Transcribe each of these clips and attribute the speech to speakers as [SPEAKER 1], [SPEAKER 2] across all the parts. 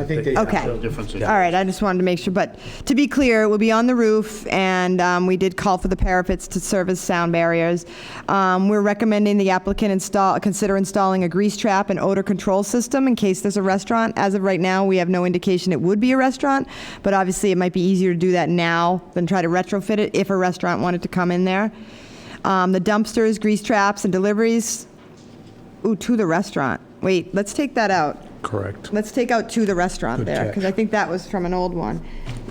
[SPEAKER 1] I think they
[SPEAKER 2] Okay.
[SPEAKER 3] No differences.
[SPEAKER 2] All right, I just wanted to make sure, but to be clear, it will be on the roof, and um, we did call for the parapets to serve as sound barriers. Um, We're recommending the applicant install, consider installing a grease trap and odor control system in case there's a restaurant. As of right now, we have no indication it would be a restaurant, but obviously, it might be easier to do that now than try to retrofit it if a restaurant wanted to come in there. Um, The dumpsters, grease traps, and deliveries, ooh, to the restaurant. Wait, let's take that out.
[SPEAKER 4] Correct.
[SPEAKER 2] Let's take out to the restaurant there, because I think that was from an old one.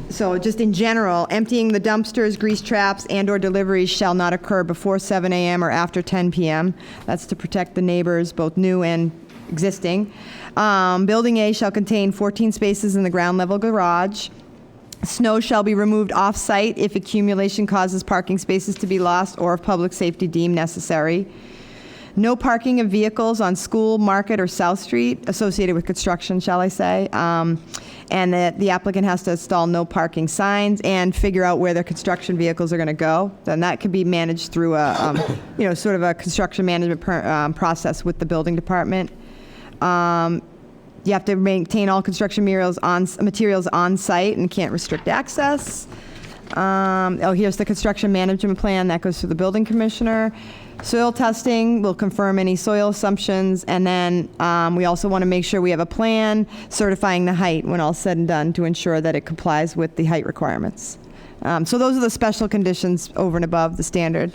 [SPEAKER 2] So just in general, emptying the dumpsters, grease traps, and/or deliveries shall not occur before 7 AM or after 10 PM. That's to protect the neighbors, both new and existing. Um, Building A shall contain 14 spaces in the ground-level garage. Snow shall be removed off-site if accumulation causes parking spaces to be lost or if public safety deemed necessary. No parking of vehicles on School, Market, or South Street associated with construction, shall I say. Um, And that the applicant has to install no parking signs and figure out where their construction vehicles are going to go. Then that could be managed through a, um, you know, sort of a construction management per- um, process with the building department. Um, You have to maintain all construction materials on, materials on-site and can't restrict access. Um, oh, here's the construction management plan that goes to the building commissioner. Soil testing will confirm any soil assumptions, and then um, we also want to make sure we have a plan certifying the height when all said and done to ensure that it complies with the height requirements. Um, so those are the special conditions over and above the standard.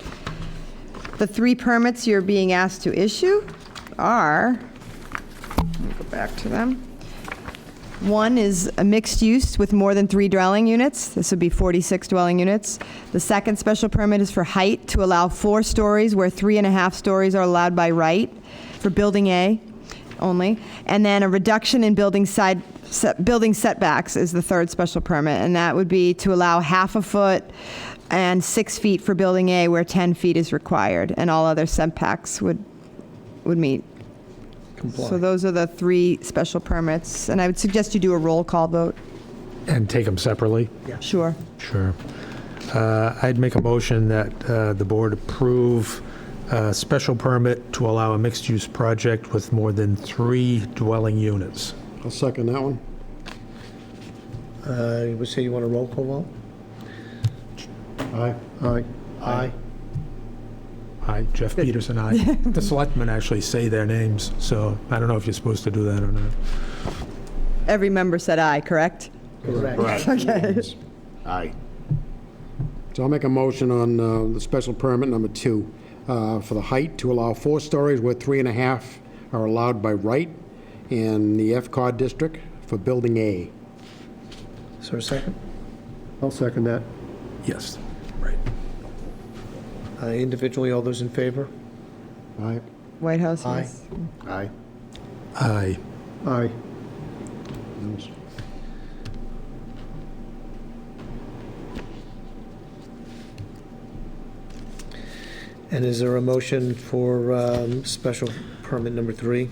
[SPEAKER 2] The three permits you're being asked to issue are, let me go back to them. One is a mixed use with more than three dwelling units. This would be 46 dwelling units. The second special permit is for height to allow four stories where three and a half stories are allowed by right for Building A only. And then a reduction in building side, set- building setbacks is the third special permit. And that would be to allow half a foot and six feet for Building A where 10 feet is required. And all other setbacks would, would meet. So those are the three special permits, and I would suggest you do a roll call vote.
[SPEAKER 4] And take them separately?
[SPEAKER 2] Sure.
[SPEAKER 4] Sure. Uh, I'd make a motion that uh, the board approve a special permit to allow a mixed-use project with more than three dwelling units.
[SPEAKER 1] I'll second that one.
[SPEAKER 3] Uh, You would say you want a roll call vote?
[SPEAKER 1] Aye. Aye.
[SPEAKER 3] Aye.
[SPEAKER 4] Aye, Jeff Peterson, aye. The selectmen actually say their names, so I don't know if you're supposed to do that or not.
[SPEAKER 2] Every member said aye, correct?
[SPEAKER 3] Correct.
[SPEAKER 2] Okay.
[SPEAKER 3] Aye.
[SPEAKER 1] So I'll make a motion on uh, the special permit number two uh, for the height to allow four stories where three and a half are allowed by right in the FCOD district for Building A.
[SPEAKER 3] Is there a second?
[SPEAKER 1] I'll second that.
[SPEAKER 4] Yes, right.
[SPEAKER 3] Uh, Individually, all those in favor?
[SPEAKER 1] Aye.
[SPEAKER 2] White House,
[SPEAKER 3] Aye.
[SPEAKER 2] yes.
[SPEAKER 3] Aye.
[SPEAKER 4] Aye.
[SPEAKER 1] Aye.
[SPEAKER 3] And is there a motion for um, special permit number three?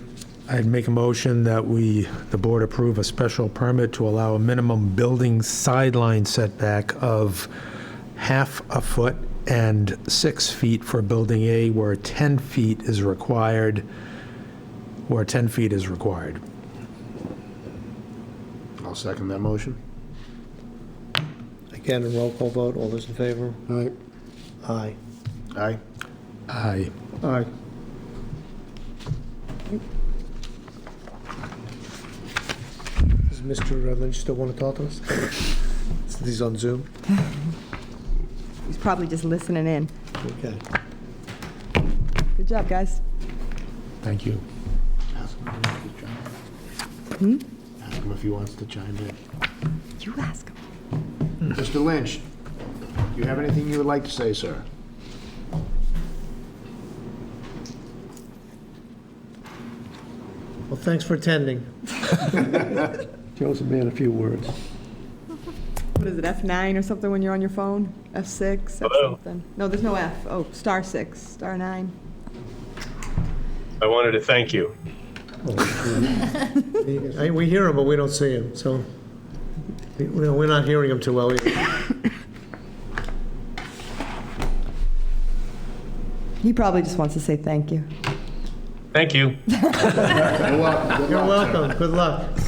[SPEAKER 4] I'd make a motion that we, the board approve a special permit to allow a minimum building sideline setback of half a foot and six feet for Building A where 10 feet is required, where 10 feet is required.
[SPEAKER 5] I'll second that motion.
[SPEAKER 3] Again, a roll call vote, all those in favor?
[SPEAKER 1] Aye.
[SPEAKER 3] Aye.
[SPEAKER 5] Aye.
[SPEAKER 4] Aye.
[SPEAKER 1] Aye.
[SPEAKER 3] Does Mr. Lynch still want to talk to us? Since He's on Zoom?
[SPEAKER 2] He's probably just listening in.
[SPEAKER 3] Okay.
[SPEAKER 2] Good job, guys.
[SPEAKER 4] Thank you.
[SPEAKER 5] Ask him if he wants to chime in. Ask him if he wants to chime in.
[SPEAKER 2] You ask him.
[SPEAKER 5] Mr. Lynch, do you have anything you would like to say, sir?
[SPEAKER 3] Well, thanks for attending.
[SPEAKER 1] Joe's a man of few words.
[SPEAKER 2] What is it, F9 or something when you're on your phone? F6, F something? No, there's no F. Oh, star six, star nine.
[SPEAKER 6] I wanted to thank you.
[SPEAKER 3] I- We hear him, but we don't see him, so we- we're not hearing him too well either.
[SPEAKER 2] He probably just wants to say thank you.
[SPEAKER 6] Thank you.
[SPEAKER 5] You're welcome.
[SPEAKER 3] You're welcome, good luck.